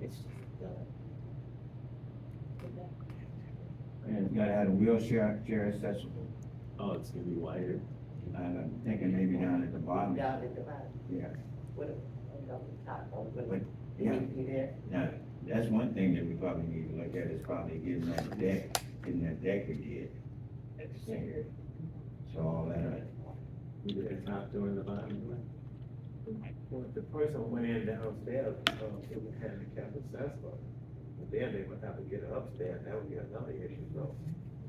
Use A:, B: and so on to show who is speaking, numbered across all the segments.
A: It's, uh, good luck.
B: And it's gotta have a wheelchair, chair accessible,
C: Oh, it's gonna be wider.
B: and I'm thinking maybe down at the bottom, yeah,
A: Down at the bottom, with a, on the top, or with
B: Wait,
A: a,
B: yeah.
A: you there,
B: Now, that's one thing that we probably need to look at, is probably getting that deck, getting that deck we did at the center. So all that, uh,
C: We did the top door and the bottom.
D: Well, if the person went in downstairs, um, it would have the capital accessible. But then they would have to get upstairs, that would be another issue, so.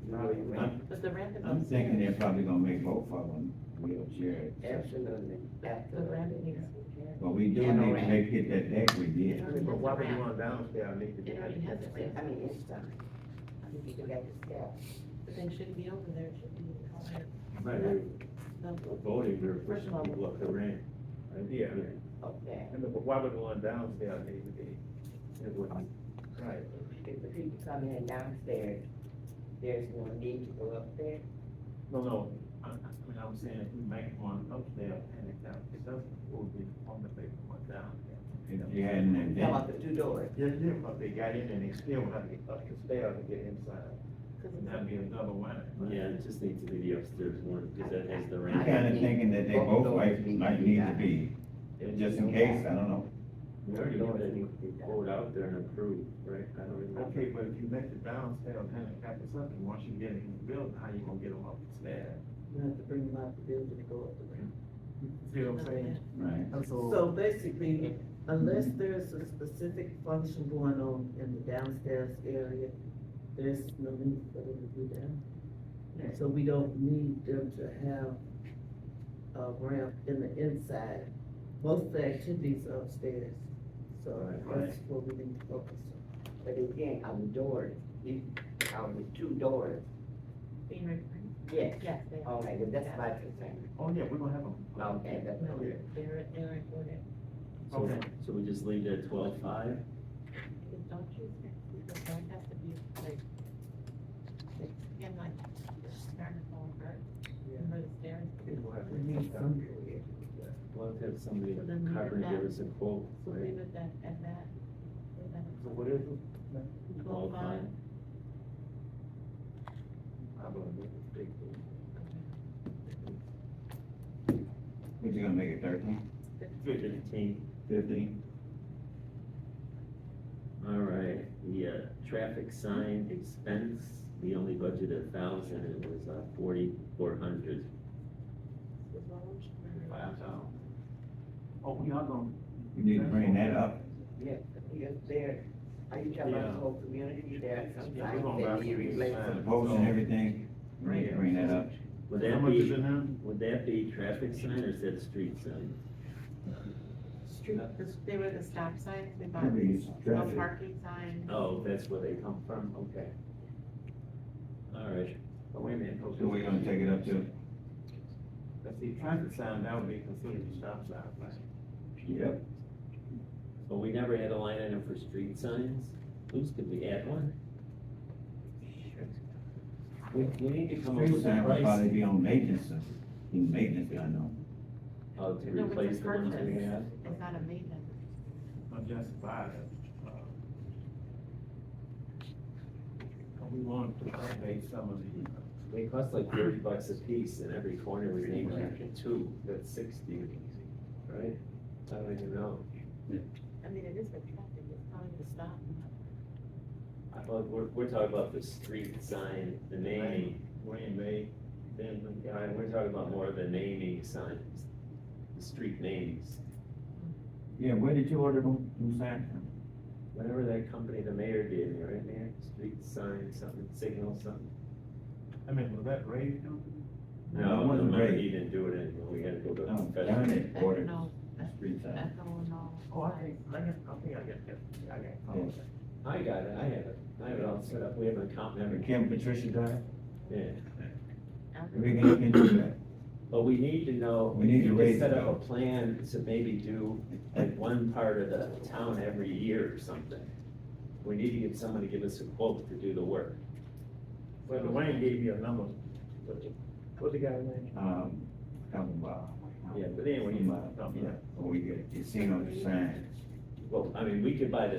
D: Not even,
A: but the ramp is
B: I'm
A: upstairs.
B: thinking they're probably gonna make both of them wheelchair accessible.
A: Absolutely, that's the ramp is upstairs.
B: But we do
A: Yeah,
B: need to
A: right.
B: make it that deck we did.
A: Yeah.
D: but why would you want downstairs, need to be.
E: It already has a ramp.
A: I mean, it's, uh, I mean, you can get the staff.
E: But then shouldn't be over there, it should be over
C: Right,
E: there.
C: we're voting, we're pushing
E: First of all,
C: people up the ramp. right?
D: Yeah.
A: Okay.
D: I mean, but why would the one downstairs need to be?
C: It wouldn't-
D: Right.
A: If the people come in downstairs, there's no need to go up there.
D: No, no, I, I mean, I'm saying, if we make one upstairs and it down, it doesn't, it would be on the paper, one downstairs.
B: If you had an
A: Come
B: event,
A: up the two doors.
D: Yeah, yeah, but they got in and they still would have to get up the stairs to get inside, and that'd be another one. right?
C: Yeah, it just needs to be the upstairs one, because that has the
B: I'm
C: ramp.
B: kinda thinking that they both like, might need to be, just in case, I don't know.
C: We already know that you can vote out there and approve, right? I don't remember.
D: Okay, but if you make the downstairs handicap something, once you get in the building, how you gonna get them up the stairs?
A: You have to bring them out the building to go up the ramp.
D: See what I'm saying?
B: Right.
D: And so,
F: So basically, unless there's a specific function going on in the downstairs area, there's no need for them to be down. So we don't need them to have a ramp in the inside. Most of the activities are upstairs, so
C: Right,
F: that's what we need to focus on.
A: But again, our doors, you, our two doors,
E: Being recorded?
A: yes,
E: Yes, they are.
A: okay, but Oh, that's my concern.
D: oh yeah, we're gonna have them.
A: Okay, that's,
E: No,
D: Yeah.
E: They're, they're recorded.
C: So, so we just leave it at twelve-five?
E: Because Don't you think, because don't have to be like, like, again, like, starting from birth, remember the stairs?
D: People have
F: We need
D: to-
F: some-
C: We'll have to have somebody
E: So then leave it
C: cover and
E: at-
C: give us a quote,
E: So
C: right?
E: leave it at, at that.
D: So what is it?
E: Twelve five,
D: I'm gonna make a big thing.
B: What you gonna make it thirteen,
C: fifteen.
B: fifteen?
C: All right, the, uh, traffic sign expense, we only budgeted a thousand, it was, uh, forty-four hundred.
E: was large.
D: Five down. Oh, we are gonna.
B: We need to bring that up.
A: yeah, because there, are you talking about the whole community there?
D: Yeah, we're
A: Sometimes
D: gonna
A: that
D: buy
A: need
D: some new
A: replacement.
B: The
D: signs.
B: posts and everything, bring, bring that up.
C: Would
D: How
C: that
D: much is
C: be,
D: it now?
C: would that be traffic sign or is that street sign?
E: Street, because they were the stop signs, they bought
B: Maybe it's
E: no
B: traffic.
E: parking signs.
C: Oh, that's where they come from, okay. All right,
D: Oh, wait a minute. no,
B: So we're gonna take it up to,
D: Let's see, traffic sign, that would be considered a stop sign, right?
B: yep,
C: but we never had a line item for street signs, who's, could we add one? We, we need to come up
B: street
C: with a
B: sign would probably
C: price,
B: be on maintenance, uh, in maintenance, I know.
C: uh, to
E: No, it's a
C: replace the ones we
E: purchase.
C: have.
E: It's not a maintenance.
D: not just buy it. uh, We want to update some of the, uh,
C: They cost like thirty bucks a piece and every corner was named after two, that's sixty, right? I don't even know,
E: I mean, it is for traffic, it's probably the stop.
C: I thought, we're, we're talking about the street sign, the naming,
D: Green Bay, then the guy,
C: right, we're talking about more of the naming signs, the street names.
B: Yeah, where did you order them, them signs from?
C: Whatever that company the mayor did, right, mayor, street sign, something, signal, something.
D: I mean, was that raised?
B: No, it
C: No, the
B: wasn't
C: mayor,
B: great.
C: he didn't do it anymore, we gotta go to
B: No,
C: confession.
B: Johnny ordered
E: No,
B: the street sign.
E: that's the one, no.
D: Oh, I think, I think, I think I got that, I got
B: Yeah.
D: that.
C: I got it, I have it, I have it all set up, we have an account
B: Remember
C: member,
B: Kim Patricia died?
C: yeah.
B: We can, we can do that.
C: But we need to know.
B: We need to
C: you could
B: raise
C: Set
B: it
C: up a
B: up.
C: plan to maybe do like one part of the town every year or something. We need to get someone to give us a quote to do the work.
D: Well, Dwayne gave me a number. What's the guy's name?
B: Um, come, uh,
C: Yeah, but anyway,
B: Come, uh, yeah, or we get a casino sign.
C: well, I mean, we could buy the